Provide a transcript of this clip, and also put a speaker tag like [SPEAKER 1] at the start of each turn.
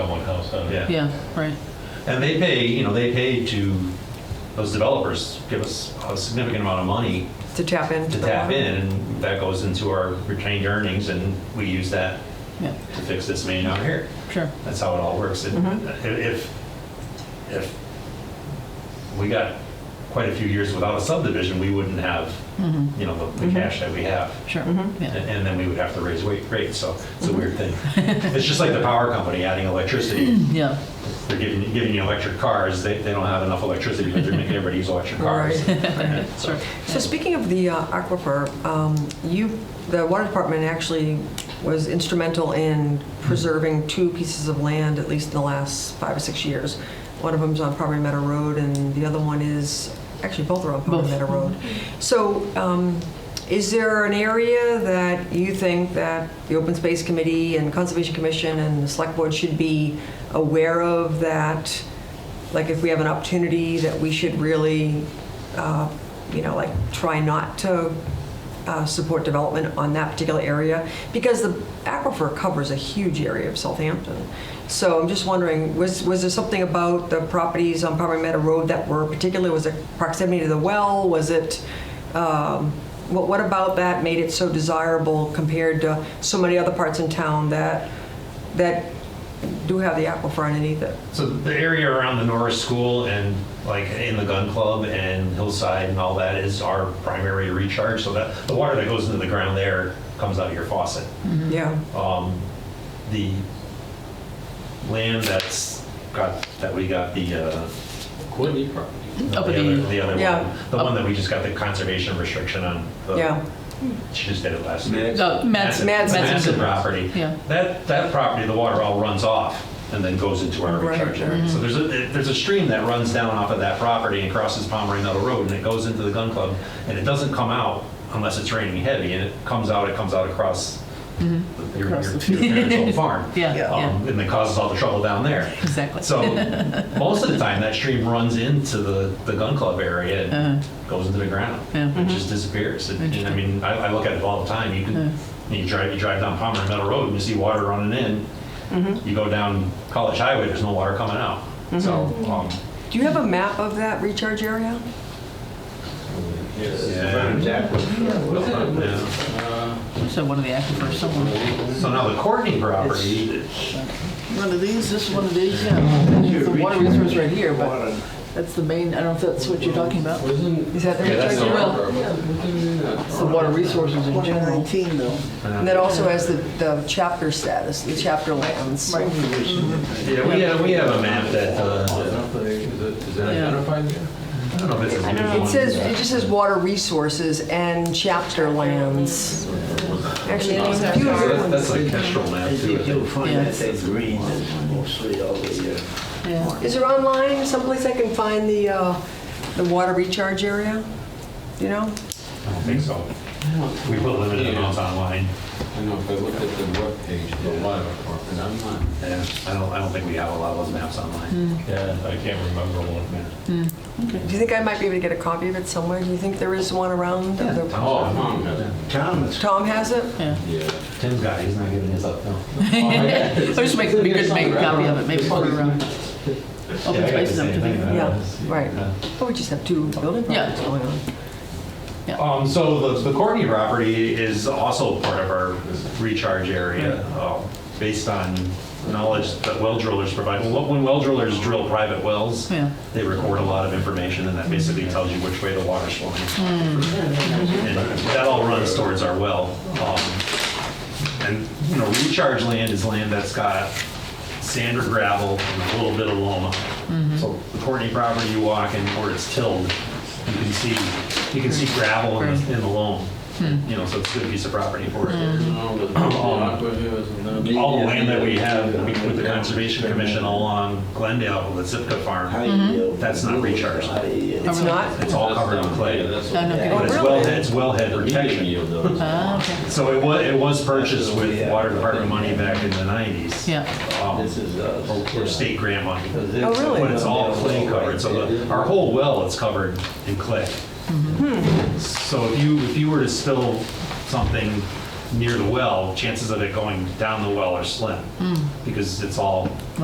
[SPEAKER 1] one house on it.
[SPEAKER 2] Yeah.
[SPEAKER 3] Yeah, right.
[SPEAKER 2] And they pay, you know, they pay to, those developers give us a significant amount of money
[SPEAKER 4] to tap into.
[SPEAKER 2] to
[SPEAKER 4] the
[SPEAKER 2] tap
[SPEAKER 4] water.
[SPEAKER 2] in, and that goes into our retained earnings, and we use that
[SPEAKER 3] Yeah,
[SPEAKER 2] to fix this main out here.
[SPEAKER 3] sure.
[SPEAKER 2] That's how it all works. And i- If, if we got quite a few years without a subdivision, we wouldn't have, you know, the the cash that we have.
[SPEAKER 3] Mm-hmm. Sure.
[SPEAKER 2] And
[SPEAKER 3] Yeah.
[SPEAKER 2] and then we would have to raise weight rates, so it's a weird thing. It's just like the power company adding electricity.
[SPEAKER 3] Yeah.
[SPEAKER 2] They're giving, giving you electric cars, they, they don't have enough electricity, but they're making everybody use electric cars.
[SPEAKER 3] Sure.
[SPEAKER 4] So speaking of the uh, aquifer, um, you, the water department actually was instrumental in preserving two pieces of land, at least in the last five or six years. One of them's on Property Meadow Road, and the other one is, actually, both are on Property
[SPEAKER 3] Both.
[SPEAKER 4] Meadow Road. So um, is there an area that you think that the Open Space Committee and Conservation Commission and the Select Board should be aware of that, like if we have an opportunity that we should really, uh, you know, like try not to uh, support development on that particular area? Because the aquifer covers a huge area of Southampton. So I'm just wondering, was, was there something about the properties on Palmer Meadow Road that were particular, was it proximity to the well? Was it, um, what, what about that made it so desirable compared to so many other parts in town that, that do have the aquifer underneath it?
[SPEAKER 2] So the area around the Norris School and like in the gun club and hillside and all that is our primary recharge. So that the water that goes into the ground there comes out of your faucet.
[SPEAKER 4] Yeah,
[SPEAKER 2] Um, the land that's got that we got the uh,
[SPEAKER 1] Courtney property.
[SPEAKER 2] the
[SPEAKER 3] Up at
[SPEAKER 2] other,
[SPEAKER 3] Oh, the-
[SPEAKER 2] the other
[SPEAKER 4] Yeah.
[SPEAKER 2] one, the one that we just got the conservation restriction on. The,
[SPEAKER 4] yeah.
[SPEAKER 2] she just did it last year.
[SPEAKER 3] No, Matt's,
[SPEAKER 2] Massive-
[SPEAKER 4] Matt's-
[SPEAKER 2] Massive property.
[SPEAKER 3] Yeah.
[SPEAKER 2] That, that property, the water all runs off and then goes into our
[SPEAKER 4] Right.
[SPEAKER 2] recharge
[SPEAKER 3] Mm-hmm.
[SPEAKER 2] area. So there's a, there's a stream that runs down off of that property and crosses Pomeroy Meadow Road and it goes into the gun club. And it doesn't come out unless it's raining heavy and it comes out, it comes out across the- your your-
[SPEAKER 3] Mm-hmm. Across
[SPEAKER 2] your
[SPEAKER 3] the-
[SPEAKER 2] parents' old farm.
[SPEAKER 3] Yeah, yeah.
[SPEAKER 2] Um, And it causes all the trouble down there.
[SPEAKER 3] exactly.
[SPEAKER 2] So most of the time, that stream runs into the, the gun club area and goes into the ground.
[SPEAKER 3] Yeah.
[SPEAKER 2] It just disappears. And, and I
[SPEAKER 3] Interesting.
[SPEAKER 2] mean, I, I look at it all the time. You can you drive you drive down Palmer Meadow Road and you see water running in. You go down College Highway, there's no water coming out. So um,
[SPEAKER 4] Do you have a map of that recharge area?
[SPEAKER 1] Yes.
[SPEAKER 2] Yeah.
[SPEAKER 1] Jack was- was it?
[SPEAKER 2] um, yeah.
[SPEAKER 1] Uh,
[SPEAKER 3] So one of the aquifers somewhere.
[SPEAKER 2] so now the Courtney property.
[SPEAKER 3] One of these, this one of these, yeah. There's the water resource right here, but
[SPEAKER 5] Water.
[SPEAKER 3] that's the main, I don't know if that's what you're talking about.
[SPEAKER 1] Wasn't.
[SPEAKER 4] Is that the
[SPEAKER 2] Yeah, that's
[SPEAKER 4] recharge
[SPEAKER 2] the
[SPEAKER 4] area?
[SPEAKER 2] river.
[SPEAKER 3] It's the water resources in general.
[SPEAKER 5] 119 though.
[SPEAKER 2] uh,
[SPEAKER 4] And that also has the, the chapter status, the chapter lands.
[SPEAKER 3] Right.
[SPEAKER 2] Yeah, we have, we have a map that uh,
[SPEAKER 1] Is it- is it
[SPEAKER 3] Yeah.
[SPEAKER 1] identified yet?
[SPEAKER 2] I don't know if it's a new
[SPEAKER 4] It
[SPEAKER 2] one.
[SPEAKER 4] says, it just says water resources and chapter lands. Actually, there's a few
[SPEAKER 2] So
[SPEAKER 4] other
[SPEAKER 2] that's,
[SPEAKER 4] ones.
[SPEAKER 2] that's a Kestrel map
[SPEAKER 5] As
[SPEAKER 2] too.
[SPEAKER 5] you
[SPEAKER 2] I
[SPEAKER 5] do
[SPEAKER 2] think.
[SPEAKER 5] find
[SPEAKER 3] Yeah.
[SPEAKER 5] that they green and mostly all the, uh,
[SPEAKER 3] Yeah.
[SPEAKER 4] Is there online someplace I can find the, uh, the water recharge area? You know?
[SPEAKER 2] I don't think so. We put limited amounts online.
[SPEAKER 1] I know, if I look at the webpage, the water department, I'm not.
[SPEAKER 2] Yeah, I don't, I don't think we have a lot of those maps online.
[SPEAKER 3] Hmm.
[SPEAKER 1] Yeah, I can't remember one.
[SPEAKER 4] Do you think I might be able to get a copy of it somewhere? Do you think there is one around?
[SPEAKER 1] Oh, Tom has it.
[SPEAKER 5] Thomas.
[SPEAKER 4] Tom has it?
[SPEAKER 1] Yeah.
[SPEAKER 2] Tim's got, it. he's not giving his up, no.
[SPEAKER 3] Or just make, it'd be good to make a copy of it, maybe for, um,
[SPEAKER 2] Yeah, I
[SPEAKER 3] open
[SPEAKER 2] got the
[SPEAKER 3] spaces up
[SPEAKER 2] same
[SPEAKER 3] to
[SPEAKER 2] thing,
[SPEAKER 3] the.
[SPEAKER 2] I
[SPEAKER 4] Yeah,
[SPEAKER 2] don't know.
[SPEAKER 4] right. Oh, we just have two building
[SPEAKER 3] Yeah.
[SPEAKER 4] projects going on.
[SPEAKER 2] Um, so the, the Courtney property is also part of our recharge area, um, based on knowledge that well drillers provide. Well, When well drillers drill private wells,
[SPEAKER 3] Yeah. Hmm.
[SPEAKER 2] they record a lot of information, and that basically tells you which way the water's flowing. And that all runs towards our well. Um, And, you know, recharge land is land that's got sand or gravel and a little bit of loam. So the Courtney property you walk in, where it's tilled, you can see, you can see gravel in the- in the loam. You know, so it's a good piece of property for it.
[SPEAKER 1] No, the aqua here is another.
[SPEAKER 2] All the land that we have with the Conservation Commission along Glendale, the Zipka
[SPEAKER 5] High
[SPEAKER 2] farm,
[SPEAKER 5] yield.
[SPEAKER 2] That's not recharged.
[SPEAKER 5] High yield.
[SPEAKER 4] It's not?
[SPEAKER 2] it's all covered in
[SPEAKER 1] Yeah,
[SPEAKER 2] clay.
[SPEAKER 1] that's
[SPEAKER 3] No, no,
[SPEAKER 1] what-
[SPEAKER 3] okay.
[SPEAKER 2] But it's
[SPEAKER 4] really?
[SPEAKER 2] wellhead, it's wellhead
[SPEAKER 1] The medium
[SPEAKER 2] protection.
[SPEAKER 1] yield though. is-
[SPEAKER 3] Ah, okay.
[SPEAKER 2] So it was, it was purchased with water department money back in the 90s.
[SPEAKER 3] Yeah,
[SPEAKER 2] um,
[SPEAKER 5] This is
[SPEAKER 2] Or
[SPEAKER 5] us.
[SPEAKER 2] or state grant money.
[SPEAKER 4] Oh, really?
[SPEAKER 2] But it's all clay covered, so the- our whole well is covered in clay. So if you, if you were to spill something near the well, chances of it going down the well are slim, because it's all